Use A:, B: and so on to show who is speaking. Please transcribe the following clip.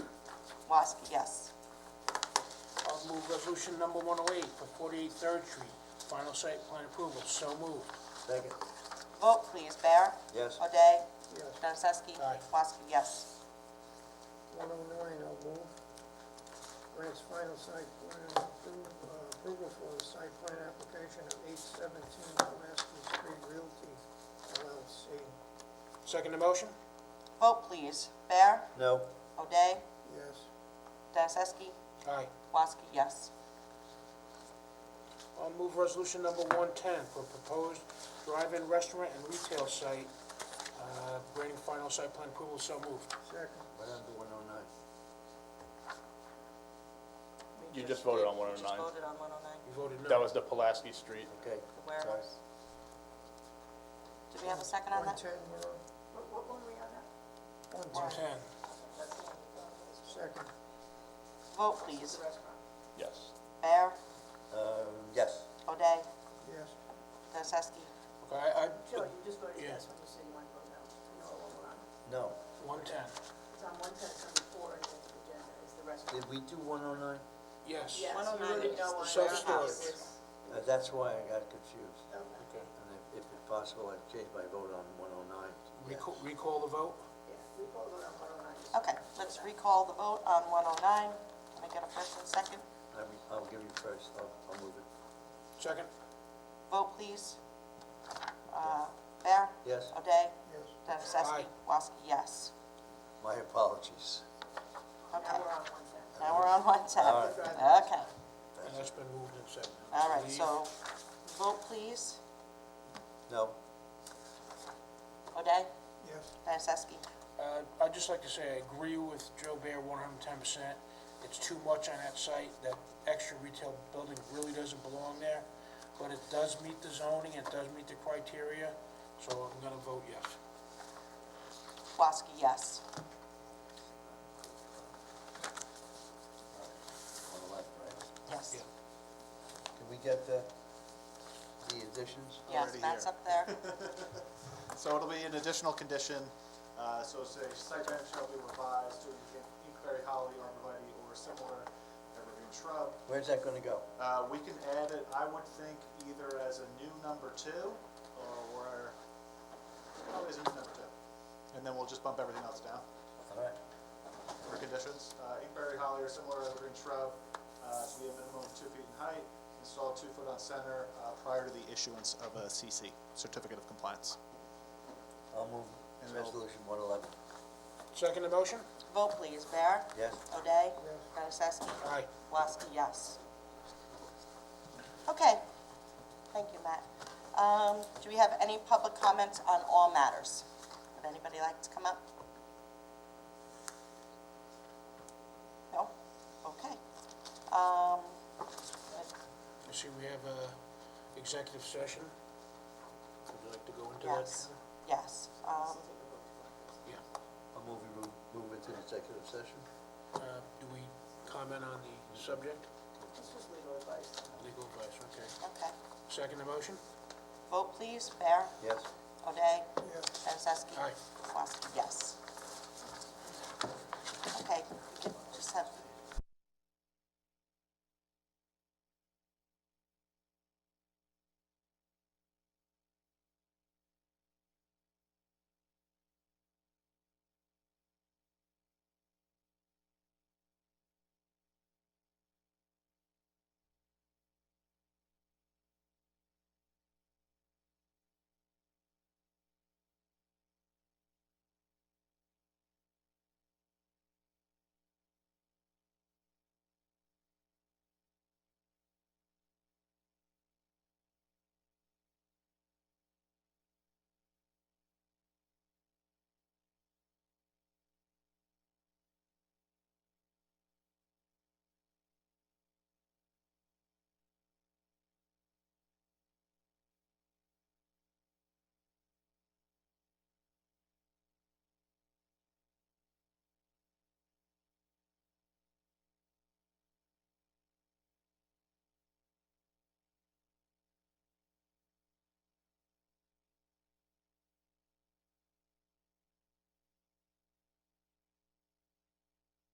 A: Woski, yes.
B: I'll move resolution number 108 for 48 Third Street, final site plan approval, so moved.
C: Second.
A: Vote please, Bear.
C: Yes.
A: O'Day.
B: Yes.
A: Nocesky.
B: Aye.
A: Woski, yes.
D: 109, I'll move. Grants final site plan appro- uh, approval for the site plan application of 817 Pulaski Street Realty LLC.
B: Second the motion?
A: Vote please, Bear.
C: No.
A: O'Day.
D: Yes.
A: Nocesky.
B: Aye.
A: Woski, yes.
B: I'll move resolution number 110 for proposed drive-in restaurant and retail site, uh, granting final site plan approval, so moved.
D: Second.
C: What happened to one oh nine?
E: You just voted on
A: did- You just
E: 109.
A: voted on 109,
B: You voted no.
E: That was the Pulaski Street.
C: Okay.
A: the warehouse. Do we have a second on that?
D: 110, we're on.
F: What were we on that?
D: 110,
B: 110.
D: second.
A: Vote please,
E: Yes.
A: Bear.
C: Uh, yes.
A: O'Day.
D: Yes.
A: Nocesky.
B: Okay, I, I,
F: Joe, you just voted
B: Yeah.
F: yes when you said you wanted to vote no. You know
C: No.
F: what we're on.
B: 110.
F: It's on one ten, it's on the four, and then the agenda is the rest.
C: Did we do one oh nine?
B: Yes.
F: Yes,
A: 109 is
F: you voted no
A: the
F: on
B: self-storage.
F: warehouse.
C: Uh, that's why I got confused.
F: Okay,
B: Okay.
C: And if, if it's possible, I'd change my vote on one oh nine.
B: Recall, recall the vote?
F: yeah, we voted on one oh nine.
A: Okay, let's recall the vote on 109. Can I get a first and second?
C: I mean, I'll give you first, I'll, I'll move it.
B: Second?
A: Vote please. Uh, Bear.
C: Yes.
A: O'Day.
D: Yes.
A: Nocesky.
B: Aye.
A: Woski, yes.
C: My apologies.
A: Okay,
F: Now we're on one ten.
A: now we're on 110.
C: All
F: right.
A: Okay,
B: And that's been moved and seconded.
A: all right, so vote please.
C: No.
A: O'Day.
D: Yes.
A: Nocesky.
B: Uh, I'd just like to say I agree with Joe Bear one hundred and ten percent. It's too much on that site. That extra retail building really doesn't belong there. But it does meet the zoning, it does meet the criteria, so I'm gonna vote yes.
A: Woski, yes.
C: On the left, right?
A: Yes.
C: Can we get the, the additions?
A: Yes,
G: Already
A: Matt's
G: here.
A: up there.
G: So it'll be an additional condition, uh, so say site plan shall be revised to include Inkberry holly, arborvitae, or similar evergreen shrub.
C: Where's that gonna go?
G: Uh, we can add it, I would think, either as a new number two, or, probably as a new number two. And then we'll just bump everything else down
C: All right.
G: for conditions. Uh, Inkberry holly or similar evergreen shrub, uh, to be a minimum of two feet in height, installed two foot on center, uh, prior to the issuance of a CC, Certificate of Compliance.
C: I'll move
G: And I'll-
C: resolution one eleven.
B: Second the motion?
A: Vote please, Bear.
C: Yes.
A: O'Day.
D: Yes.
A: Nocesky.
B: Aye.
A: Woski, yes. Okay, thank you, Matt. Um, do we have any public comments on all matters? Would anybody like to come up? No? Okay. Um,
B: I see we have a executive session. Would you like to go into that?
A: yes, yes, um,
B: Yeah.
C: I'll move, we move- move into executive session.
B: Uh, do we comment on the subject?
F: This was legal advice.
B: Legal advice, okay.
A: okay.
B: Second the motion?
A: Vote please, Bear,
C: Yes.
A: O'Day,
D: Yes.
A: Dennisesky.
B: Aye.
A: Woski, yes. Okay,